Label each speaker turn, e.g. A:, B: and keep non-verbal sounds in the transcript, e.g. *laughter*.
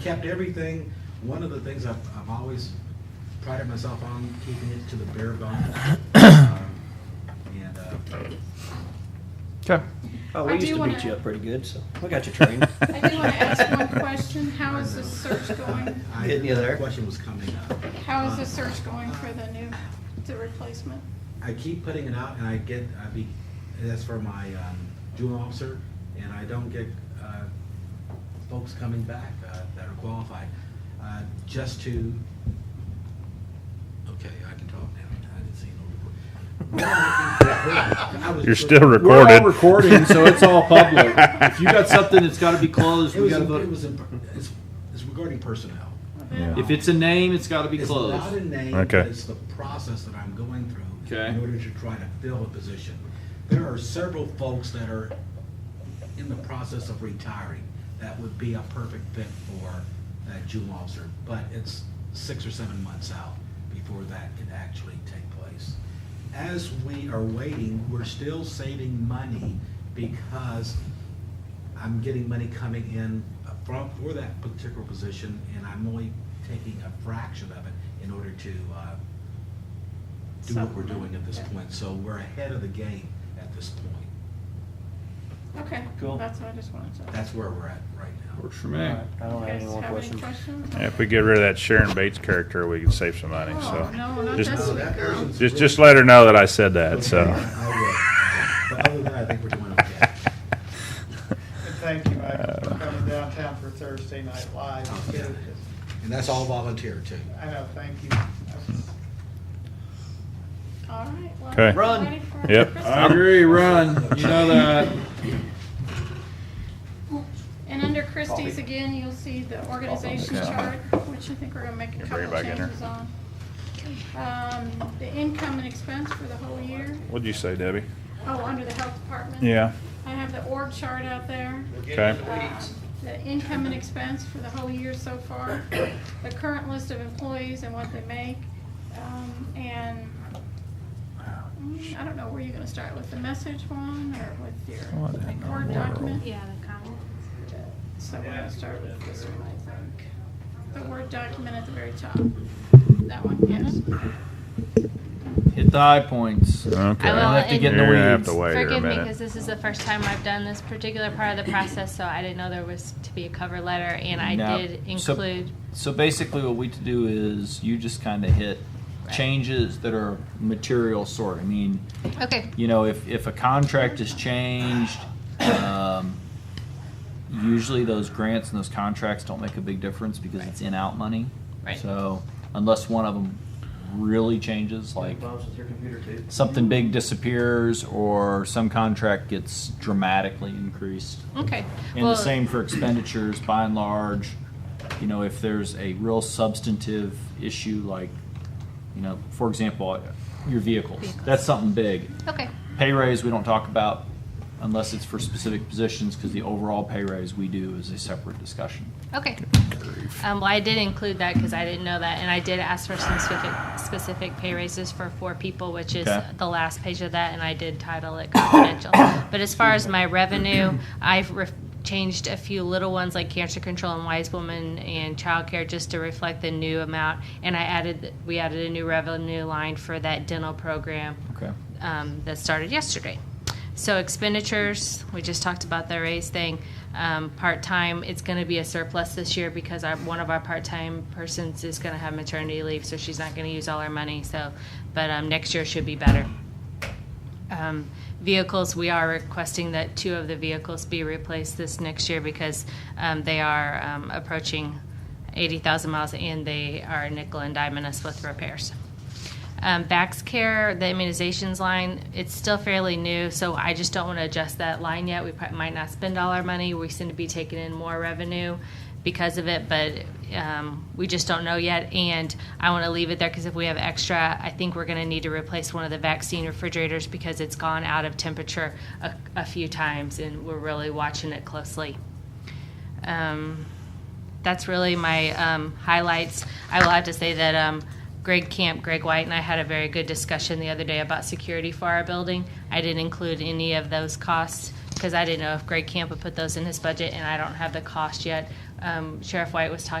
A: kept everything. One of the things I've, I've always prided myself on, keeping it to the bare
B: *coughs*
A: bones. Um, And, uh,
C: Okay.
B: Oh,
D: I
B: we
D: do
B: used to
D: wanna-
B: beat you up pretty good, so we
D: *laughs*
B: got you trained.
D: I do want to ask one question. How is the search going?
A: *laughs* I-
B: Getting you there.
A: that Question was coming up. Uh,
D: How is the search going for the new, the replacement?
A: I keep putting it out and I get, I be, that's for my um, juvenile officer, and I don't get uh, folks coming back uh, that are qualified, uh, just to, okay, I can talk now, I didn't see
E: *laughs*
A: no report.
E: You're still
A: It
C: We're all
E: recorded.
C: recording, so it's all public. if you got something that's got to be closed, we
A: was,
C: got to
A: it
C: vote.
A: was, imp- it's it's regarding personnel.
C: If it's a name, it's got to be
A: It's not a
C: closed.
A: name,
E: Okay.
A: but it's the process that I'm going through
C: Okay.
A: in order to try to fill a position. There are several folks that are in the process of retiring that would be a perfect fit for that juvenile officer, but it's six or seven months out before that can actually take place. As we are waiting, we're still saving money because I'm getting money coming in from, for that particular position, and I'm only taking a fraction of it in order to, uh, do what we're doing at this point, so we're ahead of the game at this point.
D: Okay,
B: Cool.
D: that's what I just wanted to.
A: That's where we're at right now.
C: Works for me.
B: Alright, I
D: You
B: don't have any
D: guys
B: more
D: have any
B: questions.
D: questions?
E: Yeah, If we get rid of that Sharon Bates character, we can save some money,
D: Oh,
E: so.
D: no, not
E: Just-
D: that
A: No,
D: sweet
A: that
D: girl.
A: person's
E: Just,
A: really-
E: just let her know that I said that, so.
A: Okay, I will. But other than that, I think we're doing okay.
F: Thank you, Mike, for coming downtown for Thursday Night Live.
A: Oh, yeah.
F: It was-
A: And that's all volunteer too.
F: I know, thank you. That was-
D: All right. well,
E: Okay.
C: Run.
D: ready for our
E: Yep.
D: Christmas?
C: I agree, run. You know that.
D: And under Christie's again, you'll see the organization chart, which I think we're gonna make a
E: Bring it
D: couple
E: back in there.
D: changes on. Um, the income and expense for the whole year,
E: What'd you say, Debbie?
D: oh, under the health department.
E: Yeah,
D: I have the org chart out there.
E: okay,
D: Um, The income and expense for the whole year so far, the current list of employees and what they make, um, and mm, I don't know where you're gonna start, with the message one or with
E: What in
D: your
E: the
D: Word
E: world?
D: document?
G: Yeah, the comment.
D: So we're gonna start with this one, I think. The Word document at the very top. That one, yes.
C: Hit the high points.
E: okay.
G: I will,
C: have to get in the
E: You're gonna have
C: weeds.
E: to wait here a
G: Forgive me,
E: minute.
G: because this is the first time I've done this particular part of the process, so I didn't know there was to be a cover letter, and I
C: Now,
G: did
C: so-
G: include.
C: So basically, what we to do is you just kind of hit
G: Right.
C: changes that are material sort. I mean,
G: Okay,
C: you know, if, if a contract is changed, um, usually those grants and those contracts don't make a big difference because it's in-out money.
G: Right.
C: So unless one of them really changes, like
B: Problems with your computer too.
C: something big disappears or some contract gets dramatically increased.
G: okay.
C: And the same for expenditures, by and large, you know, if there's a real substantive issue like, you know, for example, your vehicles,
G: Vehicles.
C: that's something big.
G: Okay,
C: Pay raise, we don't talk about unless it's for specific positions, because the overall pay raise we do is a separate discussion.
G: okay. Um, well, I did include that because I didn't know that, and I did ask for some specific, specific pay raises for four people, which is
C: Okay.
G: the last page of that, and I did title it confidential. But as far as my revenue, I've re- changed a few little ones like cancer control and wise woman and childcare just to reflect the new amount. And I added, we added a new revenue line for that dental program
C: Okay.
G: um, that started yesterday. So expenditures, we just talked about the raise thing. Um, part-time, it's gonna be a surplus this year because our, one of our part-time persons is gonna have maternity leave, so she's not gonna use all our money, so, but, um, next year should be better. Um, vehicles, we are requesting that two of the vehicles be replaced this next year because, um, they are, um, approaching eighty thousand miles and they are nickel and diming us with repairs. Um, Vax Care, the immunizations line, it's still fairly new, so I just don't want to adjust that line yet. We prob- might not spend all our money. We seem to be taking in more revenue because of it, but um, we just don't know yet. And I want to leave it there because if we have extra, I think we're going to need to replace one of the vaccine refrigerators because it's gone out of temperature a, a few times, and we're really watching it closely. Um, that's really my um, highlights. I will have to say that um, Greg Camp, Greg White, and I had a very good discussion the other day about security for our building. I didn't include any of those costs because I didn't know if Greg Camp would put those in his budget, and I don't have the cost yet. um, Sheriff White was talking